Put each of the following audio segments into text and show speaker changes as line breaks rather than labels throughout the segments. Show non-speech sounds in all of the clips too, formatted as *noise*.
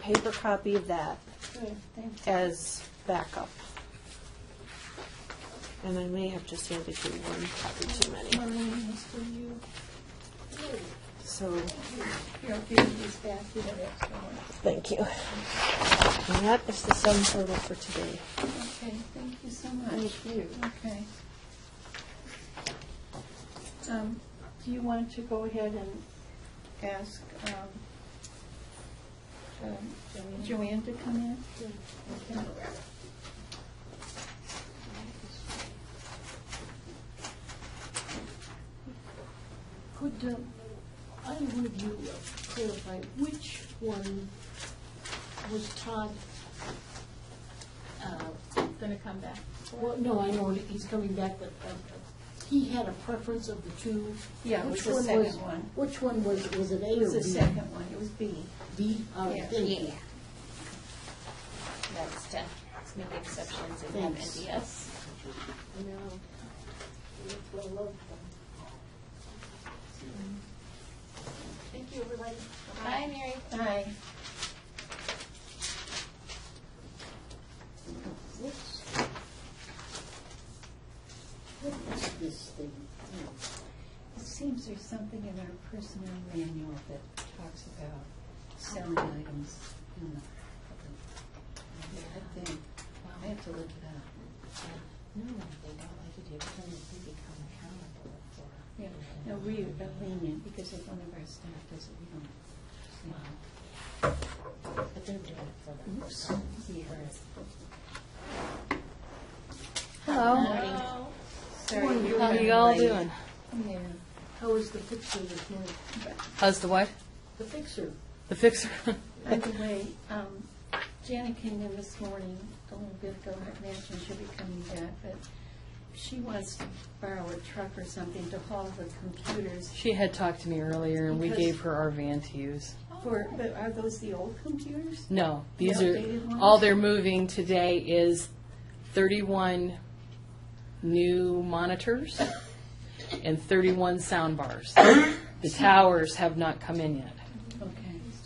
paper copy of that as backup. And I may have just handed you one copy too many,
Maureen, this for you.
so,
Here, I'll give you this back, you have extra ones.
thank you. And that is the sum total for today.
Okay, thank you so much.
you.
Okay. Um, Do you want to go ahead and ask um, um, Joanne to come in? Okay.
Could um, either one of you clarify which one was Todd? uh,
Gonna come back.
Well, no, I know he's coming back, but uh, he had a preference of the two.
Yeah, it
Which
was the
one was-
second one.
Which one was, was it A or B?
It was the second one, it was B.
B, all right,
Yeah.
thank you.
That's to make exceptions and have
Thanks.
NDS.
And now, that's what I love. Thank you, everybody.
Bye, Mary.
Aye.
Whoops. What is this thing? Oh.
It seems there's something in our personnel manual that talks about selling items in the public. I think, I have to look it up.
No, they don't like to do, because we become accountable for.
Yeah, no, we uh, are lenient because if one of our staff does it, we don't.
But they're doing it for themselves. Whereas
Hello.
Sorry, you
How
were
you all
late.
doing?
Yeah.
How is Oh, the fixer this morning?
How's the what?
The fixer?
*laughs*
The fixer?
By the way, um, Janet came in this morning, a little bit ago, I imagine she'll be coming back, but she wants to borrow a truck or something to haul the computers.
She had talked to me earlier, and we
Because-
gave her our van to use.
For, but are those the old computers?
No, these
The
are,
updated ones?
all they're moving today is 31 new monitors and 31 sound bars. The towers have not come in yet.
Okay.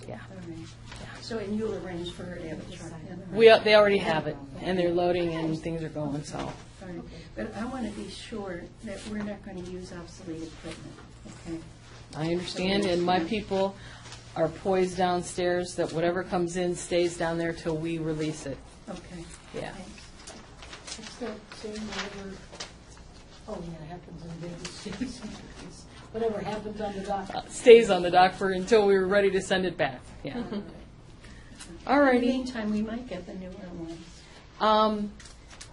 Yeah.
All right. So, and you'll arrange for her to have a truck then? right?
We, al- they already have it, and they're loading and things are going, so.
All right. But I want to be sure that we're not going to use obsolete equipment, okay?
I understand, and my people are poised downstairs that whatever comes in stays down there till we release it.
Okay.
Yeah.
Thanks.
It's that same whatever, oh yeah, it happens in Vegas *laughs* cities. Whatever happens on the dock.
stays on the dock for until we were ready to send it back. Yeah.
Mm-hmm. In
All
the
righty.
meantime, we might get the newer ones.
Um,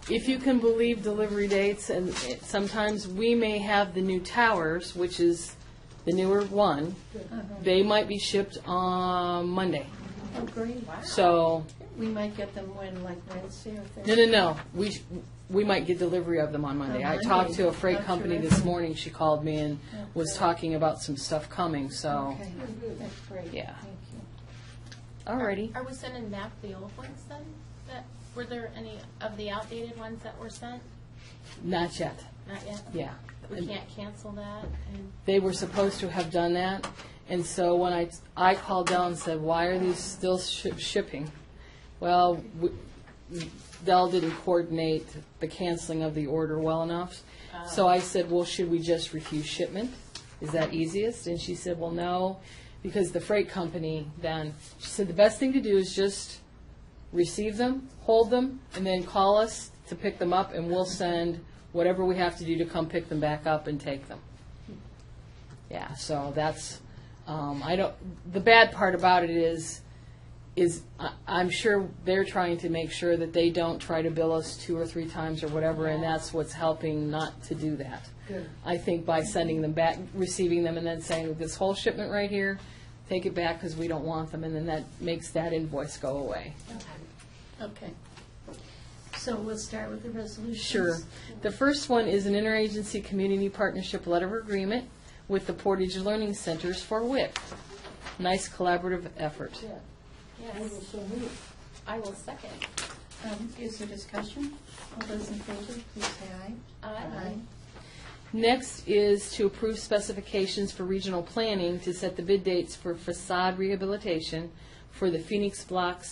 if you can believe delivery dates, and it- sometimes we may have the new towers, which is the newer one.
Uh-huh.
They might be shipped on Monday.
Oh, great.
So,
We might get them when, like Wednesday or
no,
Thursday?
no, no. We sh- we might get delivery of them on Monday. I
On
talked to
Monday.
a freight
That's
company
terrific.
this morning. She called me and was talking about some stuff coming. So,
Okay, that's great.
Yeah.
Thank you.
all righty.
Are we sending back the old ones then? That, were there any of the outdated ones that were sent?
Not yet.
Not yet?
Yeah.
We can't cancel that and,
they were supposed to have done that. And so when I, I called down and said, why are these still shi shipping? Well, w- Dell didn't coordinate the canceling of the order well enough. So I said, well, should we just refuse shipment? Is that easiest? And she said, well, no, because the freight company then, she said, the best thing to do is just receive them, hold them, and then call us to pick them up, and we'll send whatever we have to do to come pick them back up and take them. Yeah, so that's, um, I don't, the bad part about it is, is I, I'm sure they're trying to make sure that they don't try to bill us two or three times or whatever, and that's what's helping not to do that. I think by sending them back, receiving them and then saying, this whole shipment right here, take it back because we don't want them, and then that makes that invoice go away.
Okay. So we'll start with the resolutions.
Sure. The first one is an interagency community partnership letter of agreement with the Portage Learning Centers for WIC. Nice collaborative effort.
yes,
So moved.
I will second.
Um, Is there discussion? All those in favor, please say aye.
Aye.
Next is to approve specifications for regional planning to set the bid dates for facade rehabilitation for the Phoenix blocks